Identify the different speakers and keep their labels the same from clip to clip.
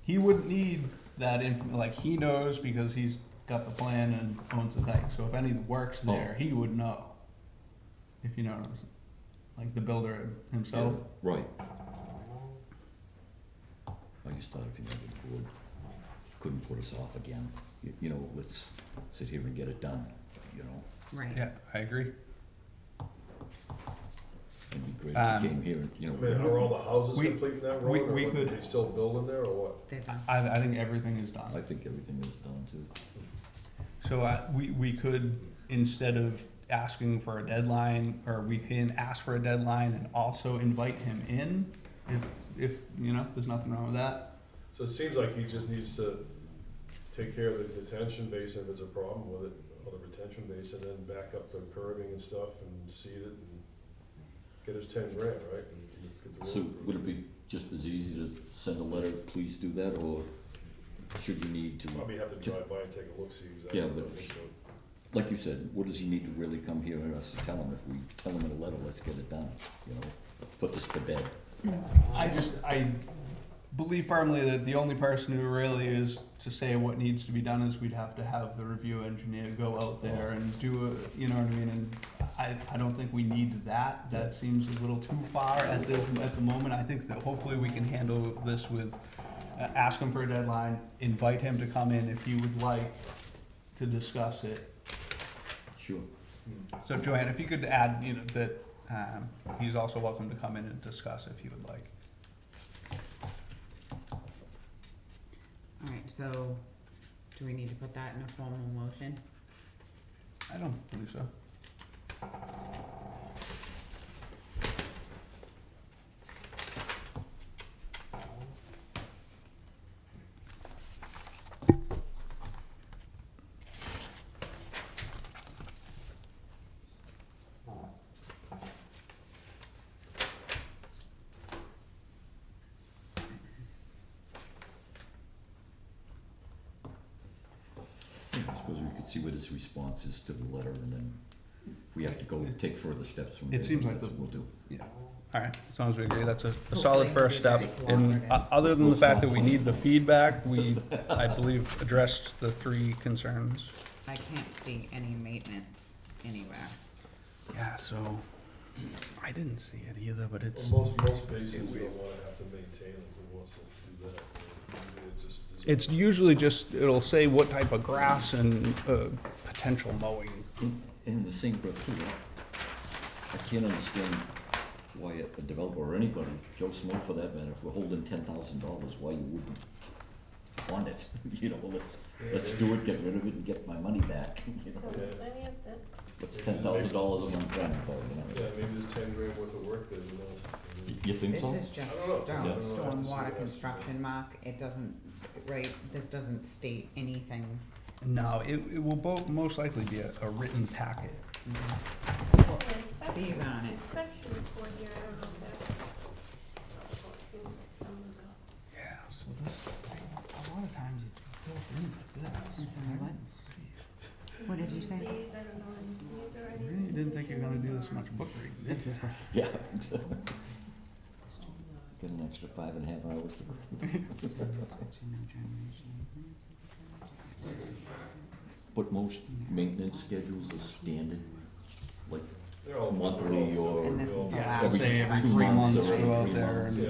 Speaker 1: he wouldn't need that info, like, he knows because he's got the plan and owns the thing, so if any work's there, he would know. If you know what I'm saying, like the builder himself.
Speaker 2: Right. I just thought if you know the board couldn't put us off again, you, you know, let's sit here and get it done, you know?
Speaker 3: right.
Speaker 1: I agree.
Speaker 2: It'd be great
Speaker 1: Um,
Speaker 2: if you came here and, you
Speaker 4: I mean, are
Speaker 2: know,
Speaker 4: all the houses
Speaker 1: We-
Speaker 4: complete in that
Speaker 1: we-
Speaker 4: road, or
Speaker 1: we
Speaker 4: what,
Speaker 1: could-
Speaker 4: are they still building there, or what?
Speaker 3: They've done.
Speaker 1: I, I think everything is
Speaker 2: I
Speaker 1: done.
Speaker 2: think everything was done too.
Speaker 1: So I, we, we could, instead of asking for a deadline, or we can ask for a deadline and also invite him in, if, if, you know, there's nothing wrong with that.
Speaker 4: So it seems like he just needs to take care of the detention basin if there's a problem with it, or the retention basin, and back up the curving and stuff, and seed it, and get his ten grand, right? and get the
Speaker 2: So
Speaker 4: road
Speaker 2: would it be just as easy to send a letter, please do that, or should you need to,
Speaker 4: Probably have to drive by and take a look, see exactly.
Speaker 2: Yeah,
Speaker 4: what
Speaker 2: but-
Speaker 4: it looks like.
Speaker 2: like you said, what does he need to really come here and us to tell him? If we tell him in a letter, let's get it done, you know, put this to bed.
Speaker 1: I just, I believe firmly that the only person who really is to say what needs to be done is we'd have to have the review engineer go out there and do a, you know what I mean, and I, I don't think we need that, that seems a little too far at the, at the moment, I think that hopefully we can handle this with, uh, ask him for a deadline, invite him to come in if he would like to discuss it,
Speaker 2: Sure.
Speaker 1: so Joanne, if you could add, you know, that, um, he's also welcome to come in and discuss if he would like.
Speaker 3: All right, so do we need to put that in a formal motion?
Speaker 1: I don't believe so.
Speaker 2: I suppose we could see what his response is to the letter, and then if we have to go take further steps from
Speaker 1: It
Speaker 2: there.
Speaker 1: seems like
Speaker 2: that's
Speaker 1: the-
Speaker 2: what We'll do.
Speaker 1: Yeah, all right, as long as we agree, that's a, a solid first step,
Speaker 3: Hopefully it'll be very
Speaker 1: and uh, other than the fact that we need the feedback, we,
Speaker 2: cooperative.
Speaker 1: I believe, addressed the three concerns.
Speaker 3: I can't see any maintenance anywhere.
Speaker 1: Yeah, so, I didn't see it either, but it's,
Speaker 4: Well, most, most basins don't wanna have to maintain them, who wants to do that? Usually it just is-
Speaker 1: it's usually just, it'll say what type of grass and, uh, potential mowing.
Speaker 2: In, in the same breath too, I, I can't understand why a- a developer or anybody, Joe Smo for that matter, if we're holding ten thousand dollars, why you wouldn't want it, you know, let's, let's do it, get rid of it and get my money back, you know?
Speaker 5: So does any of this,
Speaker 2: What's ten thousand dollars a month down for, you
Speaker 4: Yeah,
Speaker 2: know?
Speaker 4: maybe there's ten grand worth of work there, who knows?
Speaker 2: You- You think
Speaker 3: This
Speaker 2: so?
Speaker 3: is just
Speaker 4: I don't know.
Speaker 2: Yeah.
Speaker 3: storm,
Speaker 4: Yeah.
Speaker 3: stormwater construction, Mark, it doesn't, right, this doesn't state anything.
Speaker 1: No, it, it will bo- most likely be a, a written packet.
Speaker 5: well, the inspection,
Speaker 3: These on it.
Speaker 5: inspection report here, I don't know if that's helpful to some of the-
Speaker 1: Yeah, so this, a lot of times it's built into this.
Speaker 3: I'm sorry, what? What did you say?
Speaker 5: These, I don't know, and these are
Speaker 1: I
Speaker 5: any-
Speaker 1: really didn't think you're gonna do this much book reading.
Speaker 3: This is what.
Speaker 2: Yeah. Get an extra five and a half hours to go through. But most maintenance schedules are standard, like,
Speaker 4: They're all-
Speaker 2: Monthly or-
Speaker 3: And this is the
Speaker 1: Yeah,
Speaker 3: last
Speaker 1: I'd
Speaker 2: Every
Speaker 1: say every
Speaker 2: two
Speaker 1: three
Speaker 2: months
Speaker 1: months
Speaker 2: or
Speaker 1: we go
Speaker 2: three
Speaker 1: out there
Speaker 2: months.
Speaker 1: and.
Speaker 4: Yeah.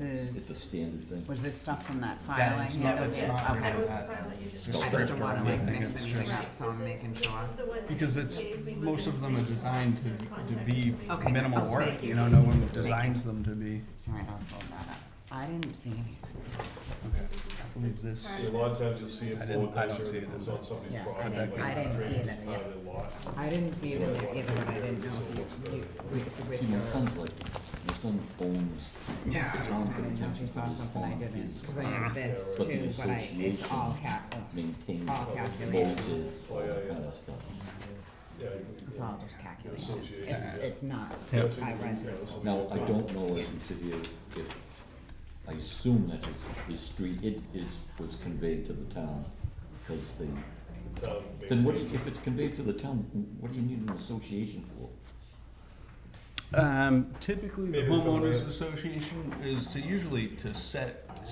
Speaker 2: it's a
Speaker 3: is,
Speaker 2: standard thing.
Speaker 3: was this stuff from that file I
Speaker 1: That's not,
Speaker 3: handed?
Speaker 1: that's not really
Speaker 3: Okay.
Speaker 5: Okay.
Speaker 1: that.
Speaker 3: I just don't wanna like mix
Speaker 1: It's
Speaker 3: anything
Speaker 1: just-
Speaker 3: up, so I'm making
Speaker 5: This is-
Speaker 3: sure.
Speaker 5: this is the one that
Speaker 1: Because it's,
Speaker 5: stays within
Speaker 1: most of them are designed to, to be
Speaker 3: Okay.
Speaker 1: minimal
Speaker 3: Oh,
Speaker 1: work,
Speaker 3: thank
Speaker 1: you
Speaker 3: you.
Speaker 1: know, no one
Speaker 3: Thank you.
Speaker 1: designs them to be.
Speaker 3: Alright, I'll hold that up. I didn't see anything.
Speaker 1: I believe this,
Speaker 4: Yeah, A lot of times you'll see
Speaker 1: I
Speaker 4: it
Speaker 1: didn't-
Speaker 4: flowing
Speaker 1: I don't
Speaker 4: pressure,
Speaker 1: see it
Speaker 4: it
Speaker 1: in
Speaker 4: comes
Speaker 1: the-
Speaker 4: on somebody's
Speaker 3: Yeah, I
Speaker 4: property,
Speaker 1: didn't-
Speaker 4: like
Speaker 1: I
Speaker 3: didn't
Speaker 4: drainage
Speaker 3: either,
Speaker 4: line and
Speaker 3: yes.
Speaker 4: lot.
Speaker 3: I didn't see it in there either, but I didn't know if you, you, with, with
Speaker 2: See, my
Speaker 3: your.
Speaker 2: son's like, my son owns
Speaker 1: yeah,
Speaker 2: the town
Speaker 3: I don't know if you
Speaker 2: pension
Speaker 3: saw
Speaker 2: for his
Speaker 3: something I
Speaker 2: farm,
Speaker 3: didn't,
Speaker 2: his
Speaker 3: cause I had this
Speaker 2: But the
Speaker 3: too, but I, it's all
Speaker 2: association-
Speaker 3: cap,
Speaker 2: maintains,
Speaker 3: all
Speaker 2: bulges,
Speaker 3: calculations.
Speaker 2: all that kind of stuff.
Speaker 4: Yeah, you can-
Speaker 3: It's all just calculations.
Speaker 4: Association.
Speaker 3: It's, it's not,
Speaker 1: Yeah.
Speaker 3: I read
Speaker 4: Yeah,
Speaker 3: through.
Speaker 4: this will be
Speaker 2: Now,
Speaker 4: okay.
Speaker 2: I don't know as we sit here, if, I assume that his, his street, it is, was conveyed to the town, because they,
Speaker 4: Town
Speaker 2: then what, do
Speaker 4: maintains
Speaker 2: you- if it's conveyed to the town, what do you need an association for?
Speaker 1: Um, typically, the
Speaker 4: Maybe from
Speaker 1: homeowners
Speaker 4: the-
Speaker 1: association is to usually to set